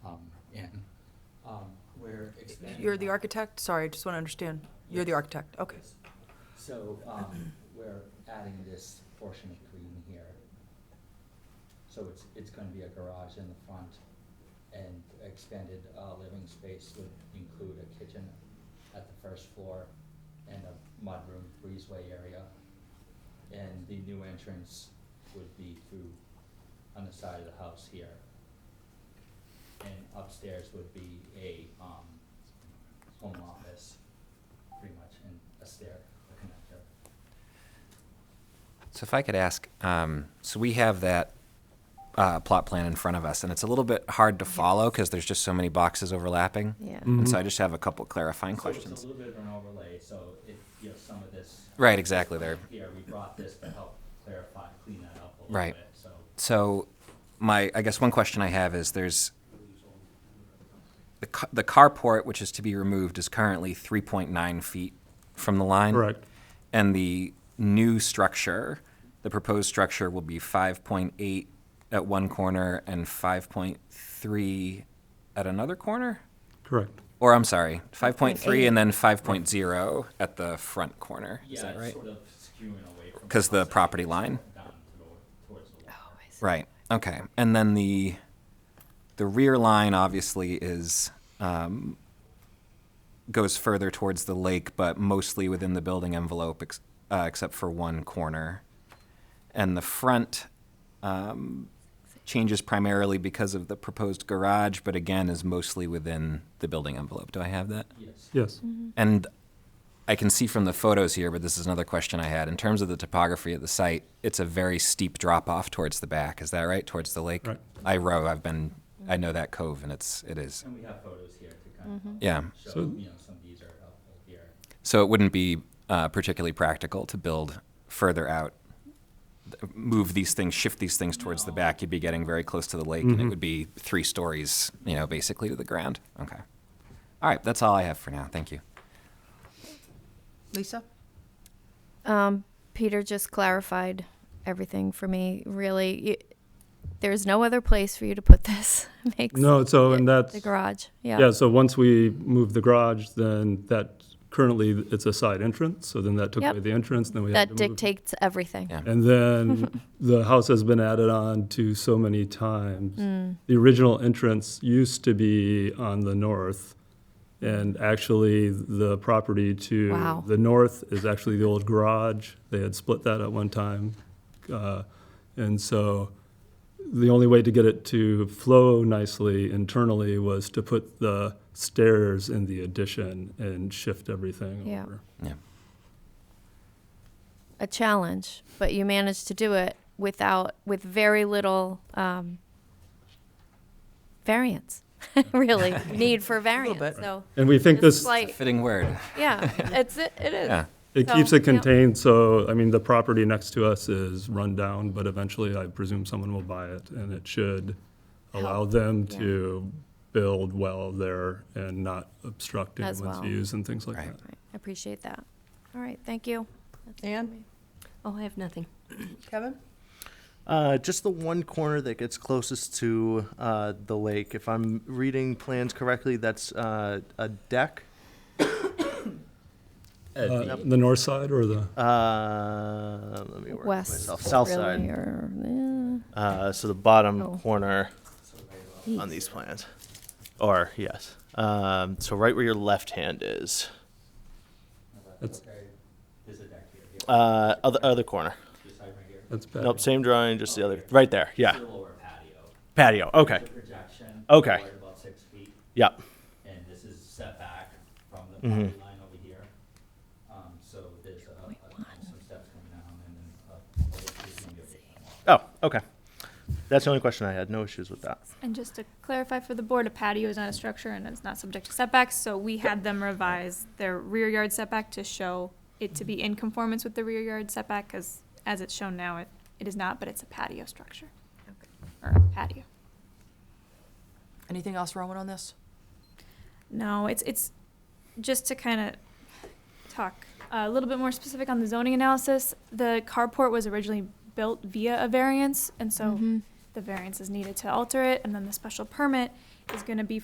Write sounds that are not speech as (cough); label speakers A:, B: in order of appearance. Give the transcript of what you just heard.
A: um,
B: You're the architect? Sorry, I just want to understand. You're the
A: Yes.
B: architect, okay.
A: Yes. So, um, we're adding this portion of green here. So it's, it's gonna be a garage in the front and expanded, uh, living space would include a kitchen at the first floor and a mudroom breezeway area. And the new entrance would be through on the side of the house here. And upstairs would be a, um, home office pretty much, and a stair, a connector.
C: So if I could ask, um, so we have that uh, plot plan in front of us, and it's a little bit hard to follow because there's just so many boxes overlapping.
D: Yeah.
C: And so I just have a couple clarifying
A: So
C: questions.
A: it's a little bit of an overlay, so if, you know, some of this.
C: Right, exactly, there.
A: Here, we brought this to help clarify, clean that up a little
C: Right.
A: bit, so.
C: So my, I guess one question I have is there's the, ca- the carport, which is to be removed, is currently 3.9 feet from the line.
E: Correct.
C: And the new structure, the proposed structure will be 5.8 at one corner and 5.3 at another corner?
E: Correct.
C: Or I'm sorry, 5.3
D: 5.8.
C: and then 5.0 at the front corner. Is that
A: Yeah, it's
C: right?
A: sort of skewing away from.
C: 'Cause the
A: house, I think,
C: property
A: it's
C: line?
A: Down to- towards the water.
C: Right. Okay. And then the the rear line obviously is um, goes further towards the lake, but mostly within the building envelope, ex- uh, except for one corner. And the front um, changes primarily because of the proposed garage, but again is mostly within the building envelope. Do I have that?
A: Yes.
E: Yes.
D: Mm-hmm.
C: And I can see from the photos here, but this is another question I had. In terms of the topography of the site, it's a very steep drop off towards the back. Is that right? Towards the lake?
E: Right.
C: I row. I've been. I know that cove, and it's. It is.
A: And we have photos here to kind of help
C: Yeah.
A: show,
E: So-
A: you know, some of these are helpful here.
C: So it wouldn't be uh, particularly practical to build further out, th- move these things, shift these things towards the
A: No.
C: back. You'd be getting very close to the lake, and it
E: Mhm.
C: would be three stories, you know, basically to the ground. Okay. All right. That's all I have for now. Thank you.
B: Lisa?
D: Um, Peter just clarified everything for me. Really, you, there's no other place for you to put this. (laughs) Makes
E: No, so, and
D: it-
E: that's,
D: the garage. Yeah.
E: yeah, so once we move the garage, then that, currently, it's a side entrance, so then that took
D: Yep.
E: away the entrance, then we had to
D: that
E: move.
D: dictates everything.
C: Yeah.
D: (laughs)
E: And then the house has been added on to so many
D: Mm.
E: times. The original entrance used to be on the north, and actually, the property to
D: Wow.
E: the north is actually the old garage. They had split that at one time. Uh, And so the only way to get it to flow nicely internally was to put the stairs in the addition and shift everything
D: Yeah.
E: over.
C: Yeah.
D: A challenge, but you managed to do it without with very little um, variance. (laughs)
E: (laughs)
D: really, need for variance.
B: bit.
D: So
E: And we think
D: Just
E: this.
D: like-
C: Fitting word.
D: yeah, it's it, it is.
C: Yeah.
E: It
D: So,
E: keeps it
D: yeah.
E: contained, so, I mean, the property next to us is run down, but eventually I presume someone will buy it, and it should allow
D: Help,
E: them
D: yeah.
E: to build well there and not obstruct
D: As
E: anyone's
D: well.
E: views and things like
C: Right.
E: that.
D: Right, I appreciate that. All right, thank you. That's it for
B: Ann?
D: me.
F: Oh, I have nothing.
B: Kevin?
G: Uh, just the one corner that gets closest to uh, the lake. If I'm reading plans correctly, that's uh, a deck.
E: Uh, The north side or the,
G: Uh, let me work
D: West,
G: myself. South
D: really,
G: side.
D: or- yeah.
G: Uh, so the bottom
D: Oh.
G: corner on these plans, or yes. Um, so right where your left hand is.
E: That's-
A: Okay, there's a deck here, yeah,
G: Uh, other other corner.
A: this side right here.
E: that's bad.
G: Nope, same drawing, just the other. Right there. Yeah.
A: The lower patio.
G: Patio. Okay.
A: There's a projection.
G: Okay.
A: forward About six feet.
G: Yep.
A: and this is set back from the property line over here. Um, so there's a, a- some steps coming down and then a, a little piece of it.
G: Oh, okay. That's the only question I had. No issues with that.
H: And just to clarify for the board, a patio is not a structure and it's not subject to setbacks, so we had them revise their rear yard setback to show it to be in conformance with the rear yard setback, because as it's shown now, it, it is not, but it's a patio structure. Or a patio.
B: Anything else Rowan on this?
H: No, it's, it's, just to kind of talk a little bit more specific on the zoning analysis, the carport was originally built via a variance, and so
D: Mhm.
H: the variance is needed to alter it, and then the special permit is gonna be